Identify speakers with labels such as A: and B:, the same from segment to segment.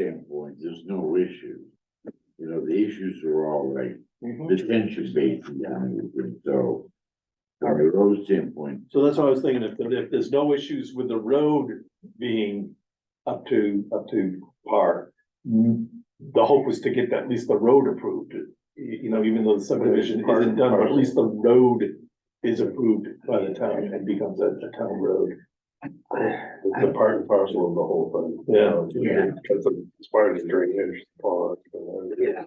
A: standpoint, there's no issue. You know, the issues are all like detention basin down there, so. From a road standpoint,
B: So that's what I was thinking, if, if there's no issues with the road being up to, up to par. The hope was to get at least the road approved, you, you know, even though the subdivision isn't done, but at least the road is approved by the town and becomes a, a town road.
C: It's a part and parcel of the whole thing.
B: Yeah.
C: Yeah. Because of, as far as drainage, pond.
D: Yeah,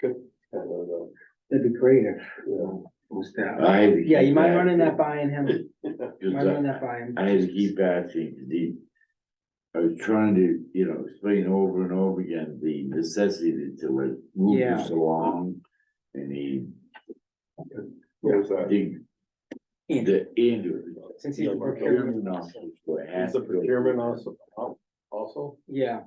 C: Good. And, uh,
D: that'd be great if,
C: yeah.
A: I had to.
D: yeah, you
A: keep
D: might run in that
A: asking,
D: by and him, might
A: 'cause I-
D: run that by him.
A: I had to keep asking, the, I was trying to, you know, explain over and over again the necessity to like move
D: Yeah.
A: this along. And he,
C: There's that.
A: the,
D: Andrew.
A: the Andrew.
D: Since he's
A: the
D: procurement
A: officer,
D: officer.
A: what
C: Is the
A: happened was-
C: procurement also, also,
D: Yeah,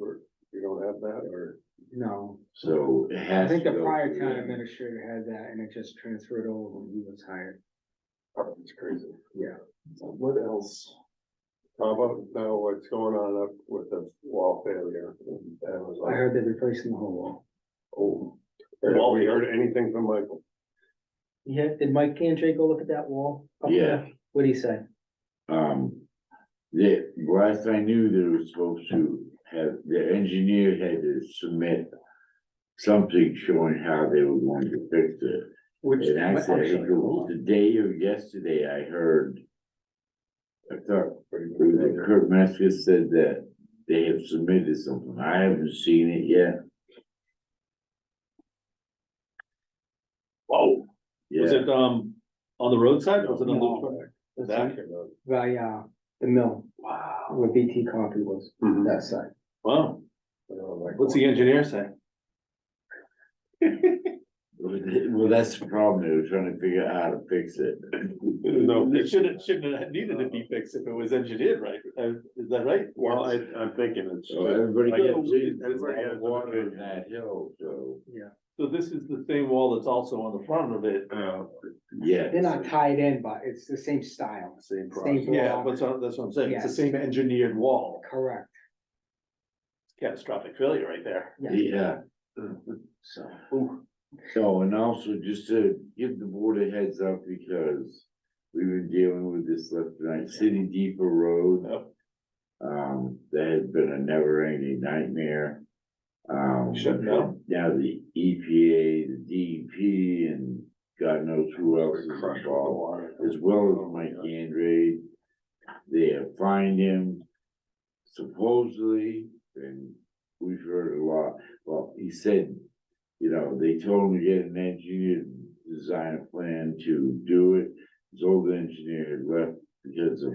C: Or you don't have that, or?
D: no,
A: So it
D: I
A: has.
D: think
A: to
D: the
A: go
D: prior
A: through
D: town
A: him.
D: administrator had that and it just transferred over when he was hired.
C: Oh, It's crazy.
D: Yeah.
C: What else? How about now what's going on up with the wall failure? in
D: I
C: Amazon?
D: heard they're replacing the whole wall.
C: Oh, Have we heard anything from Michael?
D: Yeah, did Mike Cantre go look at that wall? up there? What'd he say?
A: Um, the, last I knew, they were supposed to have, the engineer had to submit. Something showing how they were going to fix it.
C: Which,
A: And
D: I'm
A: actually, I think
D: sorry,
A: it was
D: hold
A: the day of yesterday, I heard. I thought, Kurt Metzger said that they have submitted something, I haven't seen it yet,
B: Whoa, was
A: yeah,
B: it, um, on the roadside, or was it on the?
D: That's
B: That-
D: it. By, uh, the mill,
B: Wow,
D: where BT Coffee was,
C: Mhm.
D: that side.
B: wow, what's the engineer say?
A: well, that's the problem, they were trying to figure out how to fix it.
C: No. Uh-huh.
B: It shouldn't, shouldn't have needed to be fixed if it was engineered right, Uh, is that right?
C: Well, I, I'm thinking it's.
A: So everybody
C: Like,
A: gets in,
C: everybody has
A: water
C: a-
A: in that hill, so,
D: Yeah.
B: So this is the same wall that's also on the front of it.
C: Uh,
A: yeah.
D: They're not tied in, but it's the same style,
C: Same
D: same
C: process.
B: Yeah,
D: block,
B: that's what, that's what I'm saying, it's the
D: Yes.
B: same engineered wall,
D: correct,
B: catastrophic failure right there.
D: yeah,
A: Yeah,
D: so.
B: Ooh.
A: so, and also just to give the board a heads up, because we've been dealing with this left and right, City Depot Road.
B: Yep.
A: Um, that has been a never ending nightmare. Um.
B: Shut down.
A: Now the EPA, the DEP, and God knows who else is
C: Crush the
A: involved,
C: water.
A: as well as Mike Andre. They have fined him supposedly, and we've heard a lot, well, he said, you know, they told him to get an engineer, to design a plan to do it. His old engineer had left because of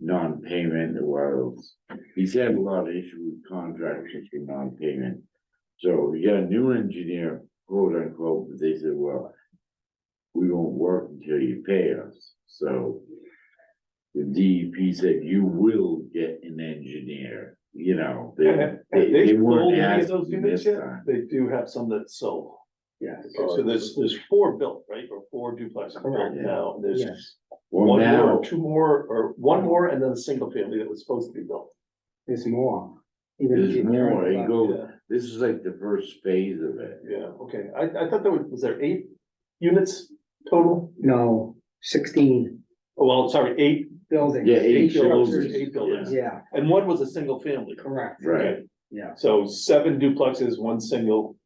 A: non-payment and what else. He's had a lot of issue with contractors for non-payment. So we got a new engineer, quote unquote, but they said, well, we won't work until you pay us, so. The DEP said, you will get an engineer, you know, they,
B: Have- have
A: they,
B: they
A: they
B: sold
A: weren't
B: any of
A: asking
B: those units
A: this
B: yet?
A: time.
B: They do have some that sold,
D: Yes,
B: so there's, there's four built, right, or four duplexes built
D: Correct.
B: now, and there's
D: yes,
A: Well,
B: one more,
A: now,
B: or two more, or one more, and then a single family that was supposed to be built.
D: there's more. Even if
A: there's
D: you
A: more,
D: turn
A: it
D: left,
A: goes, this is like the first phase of it.
B: Yeah, okay, I, I thought there was, was there eight units total?
D: No, sixteen
B: Oh, well, sorry, eight,
D: buildings.
A: Yeah, eight
B: buildings,
A: buildings,
B: eight buildings.
A: yeah,
D: Yeah,
B: and one was a single family.
D: correct,
A: right,
D: yeah,
B: So seven duplexes, one single,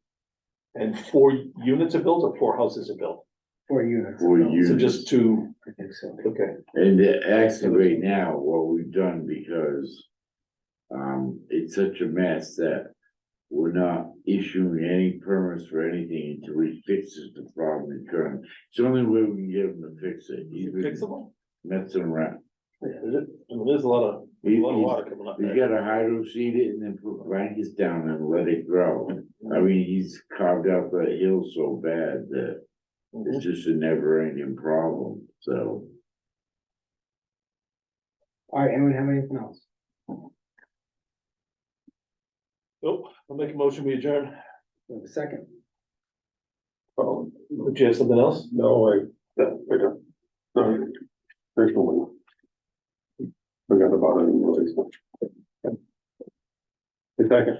B: and four units are built or four houses are built?
D: four units.
A: for
B: So
A: you.
B: just two,
D: I think so.
B: okay,
A: And the- actually right now, what we've done because. Um, it's such a mess that we're not issuing any permits for anything until we fix this the problem in turn. It's the only way we can get them to fix it. He's been
B: fixable?
A: messing around.
B: Yeah, there's, I mean, there's a lot of, a
A: He-
B: lot of
A: he's-
B: water coming up
A: He's
B: there.
A: gotta hydro seed it and then put blankets down and let it grow. I mean, he's carved out that hill so bad that
B: Mhm.
A: it's just a never ending problem, so.
D: All right, anyone have anything else?
B: Nope, I'll make a motion, we adjourn.
D: We have a second,
C: Oh,
B: Do you have something else?
C: No, I, no, I don't. No, There's no one. Forgot about it.
B: Second.